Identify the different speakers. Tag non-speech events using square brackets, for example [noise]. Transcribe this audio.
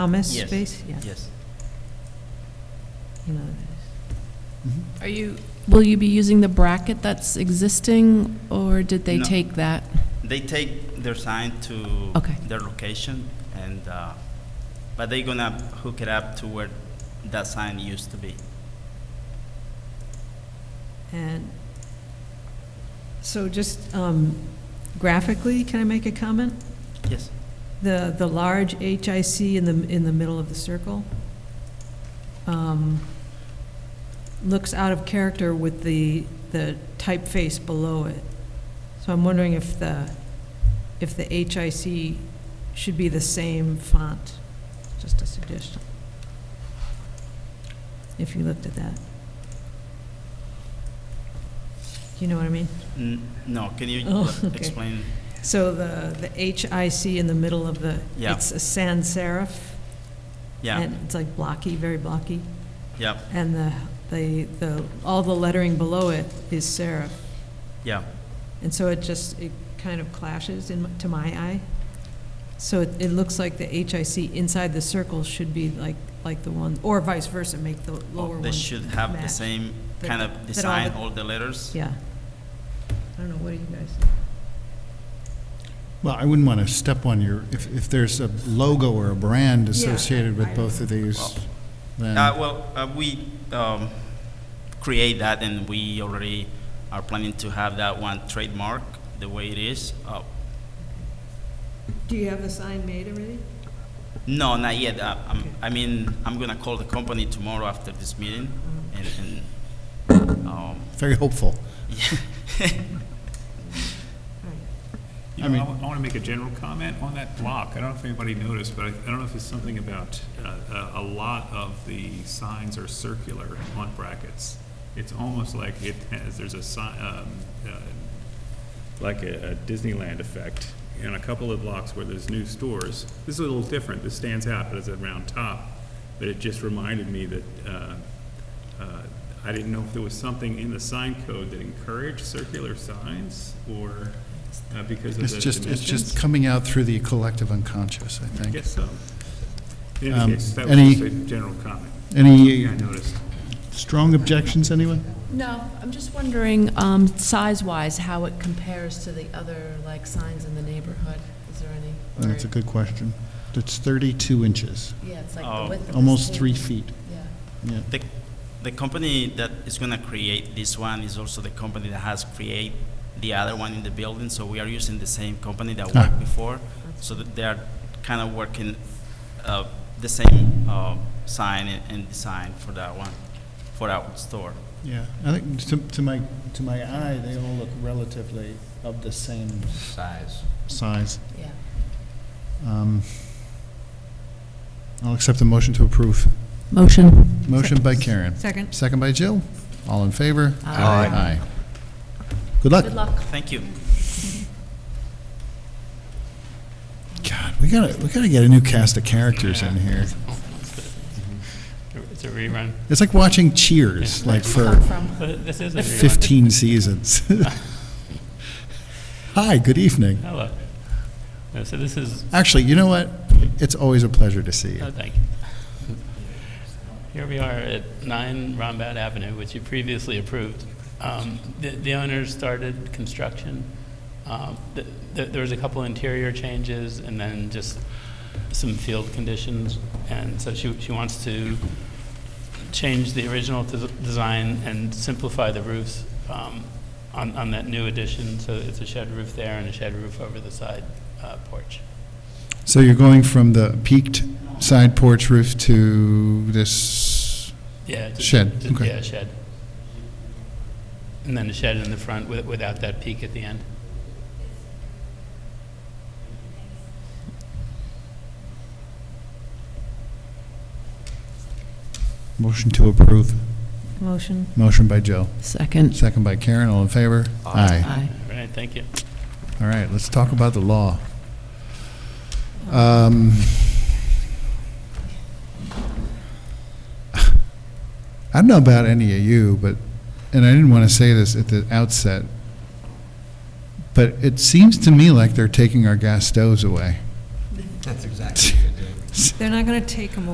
Speaker 1: Thomas
Speaker 2: Yes.
Speaker 1: space? Yeah.
Speaker 2: Yes.
Speaker 1: You know,
Speaker 3: Are you, will you be using the bracket that's existing, or did they
Speaker 2: No.
Speaker 3: take that?
Speaker 2: They take their sign to
Speaker 3: Okay.
Speaker 2: their location, and uh, but they gonna hook it up to where that sign used to be.
Speaker 1: And, so just um, graphically, can I make a comment?
Speaker 2: Yes.
Speaker 1: The, the large HIC in the, in the middle of the circle um, looks out of character with the, the typeface below it. So I'm wondering if the, if the HIC should be the same font, just a suggestion. If you looked at that. Do you know what I mean?
Speaker 2: N- no. Can you
Speaker 1: [laughs] Oh,
Speaker 2: uh,
Speaker 1: okay.
Speaker 2: explain?
Speaker 1: So the, the HIC in the middle of the,
Speaker 2: Yeah.
Speaker 1: it's a sans serif.
Speaker 2: Yeah.
Speaker 1: And it's like blocky, very blocky.
Speaker 2: yeah.
Speaker 1: And the, the, the, all the lettering below it is serif.
Speaker 2: Yeah.
Speaker 1: And so it just, it kind of clashes in, m- to my eye. So it, it looks like the HIC inside the circle should be like, like the one, or vice versa, make the
Speaker 2: Oh,
Speaker 1: lower one.
Speaker 2: they should have the
Speaker 1: match.
Speaker 2: same
Speaker 1: That-
Speaker 2: kind
Speaker 1: that all
Speaker 2: of design,
Speaker 1: the-
Speaker 2: all the letters.
Speaker 1: Yeah. I don't know, what do you guys?
Speaker 4: Well, I wouldn't want to step on your, if, if there's a logo or a brand
Speaker 1: Yeah,
Speaker 4: associated
Speaker 1: I-
Speaker 4: with both of these, then,
Speaker 2: Uh, well, uh, we um, create that, and we already are planning to have that one trademark the way it is. Uh,
Speaker 1: Do you have the sign made already?
Speaker 2: No, not yet. Uh,
Speaker 1: Okay.
Speaker 2: I'm, I mean, I'm gonna call the company tomorrow after this meeting, and, and, um,
Speaker 4: very hopeful.
Speaker 5: You
Speaker 4: I
Speaker 5: know,
Speaker 4: mean-
Speaker 5: I want to make a general comment on that block. I don't know if anybody noticed, but I I don't know if it's something about, uh, uh, a lot of the signs are circular on brackets. It's almost like it has, there's a sign, um, uh, like a a Disneyland effect in a couple of blocks where there's new stores. This is a little different. This stands out, but it's a round top. But it just reminded me that, uh, uh, I didn't know if there was something in the sign code that encouraged circular signs or uh, because of
Speaker 4: It's
Speaker 5: the
Speaker 4: just, it's just
Speaker 5: dimensions?
Speaker 4: coming out through the collective unconscious, I
Speaker 5: I
Speaker 4: think.
Speaker 5: guess so. In
Speaker 4: Um,
Speaker 5: any case, that was
Speaker 4: any-
Speaker 5: just a general comment.
Speaker 4: Any
Speaker 5: I noticed.
Speaker 4: strong objections, anyone?
Speaker 3: No, I'm just wondering, um, size-wise, how it compares to the other, like, signs in the neighborhood? Is there any?
Speaker 4: That's a good question. It's 32 inches,
Speaker 3: Yeah, it's like
Speaker 2: Oh.
Speaker 3: the width of this
Speaker 4: almost
Speaker 3: whole-
Speaker 4: three feet.
Speaker 3: Yeah.
Speaker 4: Yeah.
Speaker 2: [laughs] the, the company that is gonna create this one is also the company that has create the other one in the building, so we are using the same company that
Speaker 4: Ah.
Speaker 2: worked before, so that they are kind of working, uh, the same, uh, sign and, and design for that one, for our store.
Speaker 4: Yeah, I think to, to my, to my eye, they all look relatively of the same
Speaker 2: Size.
Speaker 4: size.
Speaker 3: Yeah.
Speaker 4: Um, I'll accept the motion to approve.
Speaker 3: Motion.
Speaker 4: Motion by Karen.
Speaker 1: Second.
Speaker 4: Second by Jill. All in favor?
Speaker 3: Aye.
Speaker 4: Aye. Good luck.
Speaker 3: Good luck.
Speaker 2: Thank you.
Speaker 4: God, we gotta, we gotta get a new cast of characters in here.
Speaker 6: It's a rerun.
Speaker 4: It's like watching Cheers, like for
Speaker 3: Come from.
Speaker 6: But This is a rerun.
Speaker 4: 15
Speaker 6: [laughs]
Speaker 4: seasons. Hi, good evening.
Speaker 6: Hello. No, Oh, So this is,
Speaker 4: Actually, you know what? It's always a pleasure to see
Speaker 6: oh,
Speaker 4: you.
Speaker 6: thank you. Here we are at 9 Rombat Avenue, which you previously approved. Um, The the owner started construction. Um, th- th- There was a couple interior changes and then just some field conditions. And so she she wants to change the original des- design and simplify the roofs um, on on that new addition. So it's a shed roof there and a shed roof over the side uh, porch.
Speaker 4: So you're going from the peaked side porch roof to this,
Speaker 6: Yeah. just-
Speaker 4: Shed,
Speaker 6: just-
Speaker 4: okay.
Speaker 6: Yeah, shed. And then a shed in the front with- without that peak at the end.
Speaker 4: motion to approve.
Speaker 1: Motion.
Speaker 4: Motion by Joe.
Speaker 3: Second.
Speaker 4: Second by Karen, all in favor? Aye.
Speaker 3: Aye.
Speaker 6: All right, thank you.
Speaker 4: All right, let's talk about the law. Um, [laughs] I don't know about any of you, but, and I didn't want to say this at the outset, but it seems to me like they're taking our gas stoves away.
Speaker 7: That's exactly what they're doing.
Speaker 1: They're not going to take them